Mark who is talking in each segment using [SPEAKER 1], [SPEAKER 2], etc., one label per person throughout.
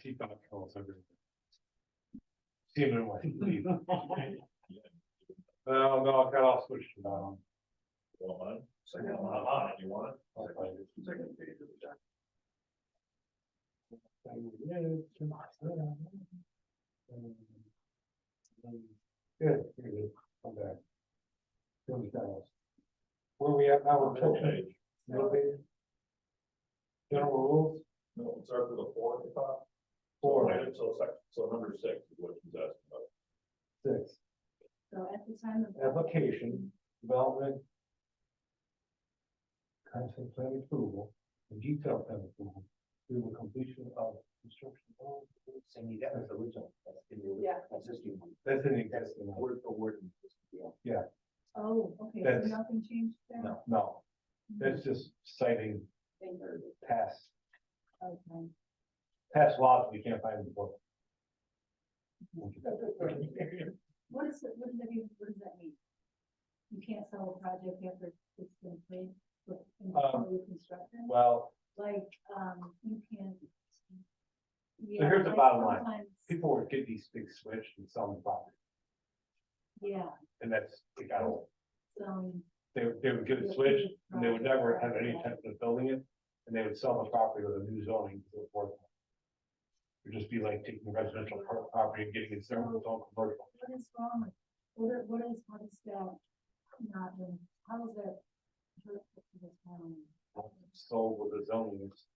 [SPEAKER 1] peacock calls everything. See him in white. Well, no, I got all switched around.
[SPEAKER 2] Well, I got a lot on it, you want it?
[SPEAKER 1] I'll find it. Good, Um, here it is. I'm back. Here we go. Where we at now? We're
[SPEAKER 2] Middle
[SPEAKER 1] tilted.
[SPEAKER 2] page.
[SPEAKER 1] Middle page. General rules,
[SPEAKER 2] No, it's after the four at the top.
[SPEAKER 1] four,
[SPEAKER 2] Right, so sec- so number six is what she's asking about.
[SPEAKER 1] six.
[SPEAKER 3] So at the time of.
[SPEAKER 1] application, development. Concept plan approval, and detailed plan approval, through the completion of construction.
[SPEAKER 4] Cindy, that was the original, that's in the
[SPEAKER 3] Yeah.
[SPEAKER 4] original, existing one.
[SPEAKER 1] That's an existing one,
[SPEAKER 4] Word for word. in this deal.
[SPEAKER 3] Oh, okay,
[SPEAKER 1] That's-
[SPEAKER 3] so nothing changed there? Mm-hmm.
[SPEAKER 4] No.
[SPEAKER 1] no, that's just citing
[SPEAKER 3] Thank you.
[SPEAKER 1] past,
[SPEAKER 3] Okay.
[SPEAKER 1] past laws we can't find in the book.
[SPEAKER 3] What is, it- what does that mean, what does that mean? You can't sell a project after it's been played, but in
[SPEAKER 1] Um,
[SPEAKER 3] construction,
[SPEAKER 1] Well,
[SPEAKER 3] like, um, you can. Yeah,
[SPEAKER 1] here's the
[SPEAKER 3] like
[SPEAKER 1] bottom line.
[SPEAKER 3] sometimes-
[SPEAKER 1] people would get these big switch and sell them property,
[SPEAKER 3] Yeah,
[SPEAKER 1] and that's, they got, old.
[SPEAKER 3] so.
[SPEAKER 1] they, they would get a switch, and they would never have any intention of building it, and they would sell the property with a new zoning to the board. It'd just be like taking residential pro- property and getting it zoned with all commercial.
[SPEAKER 3] What is wrong? with- What are, what is, what is that? Not, in- how is that? hurtful to the town?
[SPEAKER 1] Sold with the zoning is.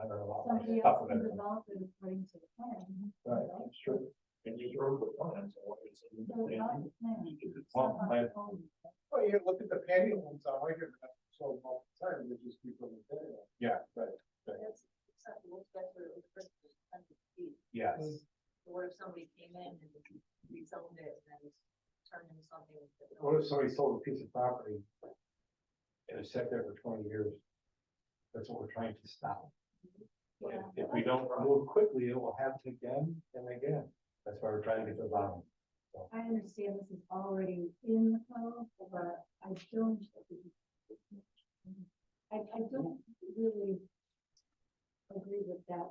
[SPEAKER 1] I don't know. I'll
[SPEAKER 3] Somebody
[SPEAKER 1] stop
[SPEAKER 3] else
[SPEAKER 1] with
[SPEAKER 3] can
[SPEAKER 1] that.
[SPEAKER 3] develop it according to the plan.
[SPEAKER 1] Right, that's true.
[SPEAKER 2] And you throw the plans, I want you to see the
[SPEAKER 3] So
[SPEAKER 2] plan.
[SPEAKER 3] not the plan.
[SPEAKER 2] It's
[SPEAKER 1] Well,
[SPEAKER 3] somehow
[SPEAKER 1] my-
[SPEAKER 3] it's owned.
[SPEAKER 5] Well, you look at the patio homes on White River, that's sold all the time, they just keep on the patio.
[SPEAKER 1] Yeah, right,
[SPEAKER 6] That's acceptable, that's where it was first conceived.
[SPEAKER 1] yes,
[SPEAKER 3] Mm.
[SPEAKER 6] But What if somebody came in and rezoned it and then turned into something? that no
[SPEAKER 1] what
[SPEAKER 6] one-
[SPEAKER 1] if somebody sold a piece of property? And it's sat there for twenty years. That's what we're trying to stop. If
[SPEAKER 3] Yeah.
[SPEAKER 1] if we don't move quickly, it will happen again and again, that's why we're trying to get the bottom.
[SPEAKER 3] I understand this is already in the code, but I don't. I, I don't really agree with that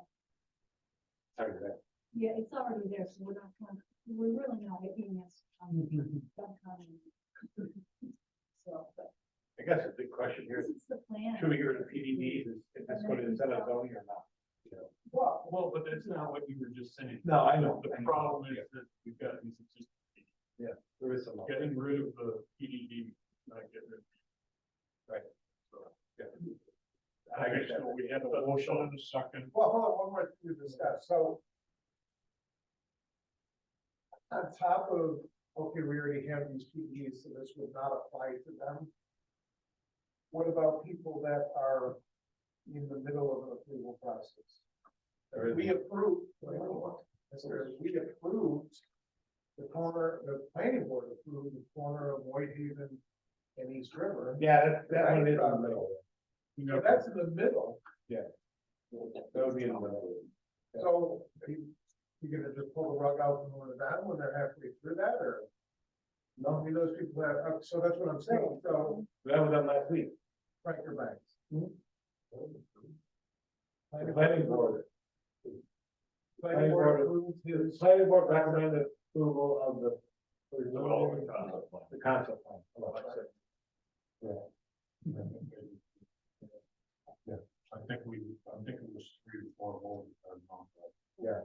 [SPEAKER 1] Sorry for that.
[SPEAKER 3] Yeah, it's already there, so we're not, gonna- we're really not hitting this. um, that kind of- So, but
[SPEAKER 1] I guess the big question here
[SPEAKER 3] this
[SPEAKER 1] is,
[SPEAKER 3] is the plan.
[SPEAKER 1] should we go to the PDD, is, is this what it is, that a zoning or not? You know?
[SPEAKER 2] Well, well, but that's not what you were just saying.
[SPEAKER 1] No, I know.
[SPEAKER 2] The problem is that we've got these, just
[SPEAKER 1] There is some.
[SPEAKER 2] getting rid of the PDD, not getting rid.
[SPEAKER 1] Right.
[SPEAKER 2] So,
[SPEAKER 1] Yeah.
[SPEAKER 2] I guess what we have a motion in a second.
[SPEAKER 5] Well, hold on, one more thing to discuss, so. On top of, okay, we already have these PDs, so this would not apply to them. What about people that are in the middle of an approval process?
[SPEAKER 1] There is
[SPEAKER 5] We
[SPEAKER 1] one.
[SPEAKER 5] approved, wait, hold on. That's where we approved the corner, the planning board approved the corner of Whitehaven and East River.
[SPEAKER 1] Yeah, that, that one is in the middle,
[SPEAKER 2] You
[SPEAKER 5] Now,
[SPEAKER 2] know,
[SPEAKER 5] that's in the middle,
[SPEAKER 1] that would be in the middle.
[SPEAKER 5] so are you, you gonna just pull the rug out from under them when they're halfway through that, or? No, I mean, those people that, uh, so that's what I'm saying, so,
[SPEAKER 1] That was on last week,
[SPEAKER 5] right, you're back.
[SPEAKER 1] the planning board,
[SPEAKER 5] Planning board approved
[SPEAKER 1] the
[SPEAKER 5] his,
[SPEAKER 1] planning board recommended approval of the. the
[SPEAKER 2] Well,
[SPEAKER 1] zoning,
[SPEAKER 2] uh,
[SPEAKER 1] The concept plan.
[SPEAKER 2] I think we, I think it was three to four votes.
[SPEAKER 5] yeah,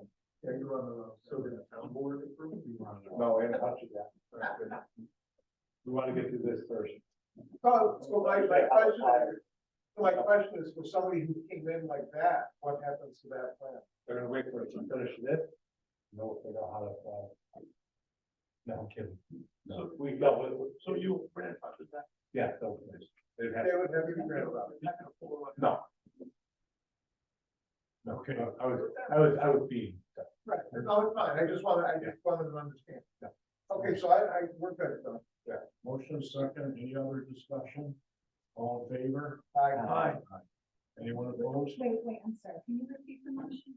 [SPEAKER 5] you're on the, road.
[SPEAKER 2] So did the town board approve?
[SPEAKER 1] No, we haven't touched that. We wanna get through this first.
[SPEAKER 5] so, so my, my question, is- my question is, for somebody who came in like that, what happens to that plan?
[SPEAKER 1] They're gonna wait for it to finish this. No, figure out how to, uh. No, I'm kidding.
[SPEAKER 2] No.
[SPEAKER 1] We, no, we- we-
[SPEAKER 2] So you grandfathered that?
[SPEAKER 1] yeah, they'll finish. They'd have,
[SPEAKER 5] They would have you read about it.
[SPEAKER 2] You're not gonna pull it
[SPEAKER 1] no. No, okay, I was, I was, I was being,
[SPEAKER 5] Right, no, it's fine, I just wanted, I just wanted to understand. Okay, so I, I, we're good, though.
[SPEAKER 2] Motion second, any other discussion? All in favor?
[SPEAKER 5] Aye.
[SPEAKER 2] Anyone opposed?
[SPEAKER 3] Wait, wait, I'm sorry, can you repeat the motion?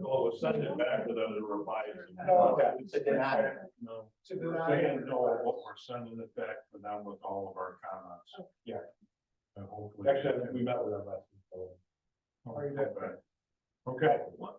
[SPEAKER 2] Oh, send it back to them to revise. it.
[SPEAKER 5] No,
[SPEAKER 1] okay.
[SPEAKER 2] It's-
[SPEAKER 4] To deny.
[SPEAKER 2] No,
[SPEAKER 5] To
[SPEAKER 2] we're
[SPEAKER 5] deny.
[SPEAKER 2] saying no, what we're sending it back to them with all of our comments.
[SPEAKER 1] Yeah.
[SPEAKER 2] And hopefully. Oh,
[SPEAKER 1] actually, we met with them last week. so-
[SPEAKER 5] Are you there?
[SPEAKER 2] Okay,